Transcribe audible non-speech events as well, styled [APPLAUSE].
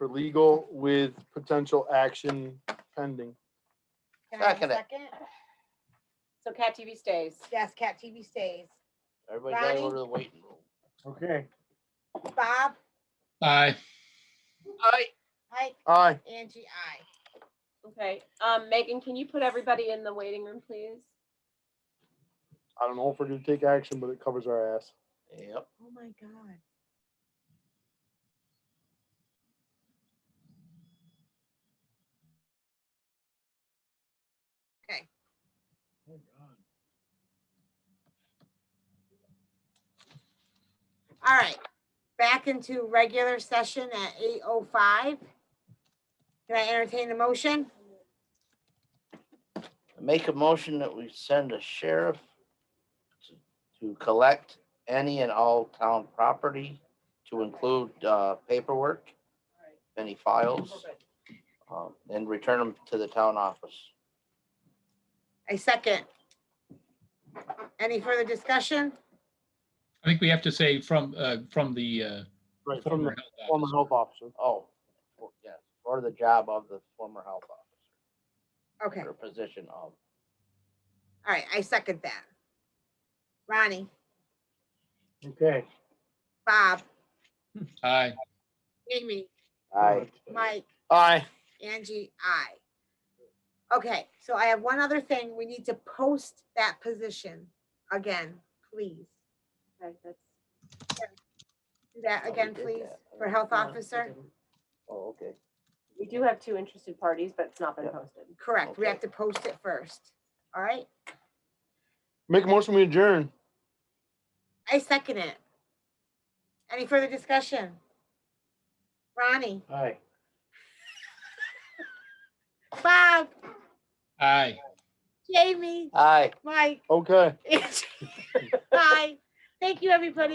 legal with potential action pending. Can I have a Second it. second? So Cat TV stays. Yes, Cat TV stays. Everybody got Ronnie? over the waiting room. Okay. Bob, Aye. I, Mike, Aye. Angie, I. Okay, um, Megan, can you put everybody in the waiting room, please? I don't know if we're gonna take action, but it covers our ass. yep, Oh my God. Okay. All right, back into regular session at eight oh five. Can I entertain the motion? make a motion that we send a sheriff to- to collect any and all town property to include uh, paperwork, any files, um, and return them to the town office. A second. Any further discussion? I think we have to say from, uh, from the, uh, Right, from former the health former officer. health officer. Oh, for- yes, or the job of the former health officer, Okay, or position all of. right, I second that. Ronnie, Okay. Bob, Aye. Amy, I, Mike, Aye. Angie, I. Okay, so I have one other thing. We need to post that position again, please. Okay, that's Do that Oh, we again, did please, that. for health officer. oh, okay, We do have two interested parties, but it's not been Yeah. posted. Correct, we have Okay. to post it first. All right, Make a motion, we adjourn. I second it. Any further discussion? Ronnie, Aye. Bob, Aye. Jamie, aye. Mike, [LAUGHS] Okay. Bye. Thank you, everybody.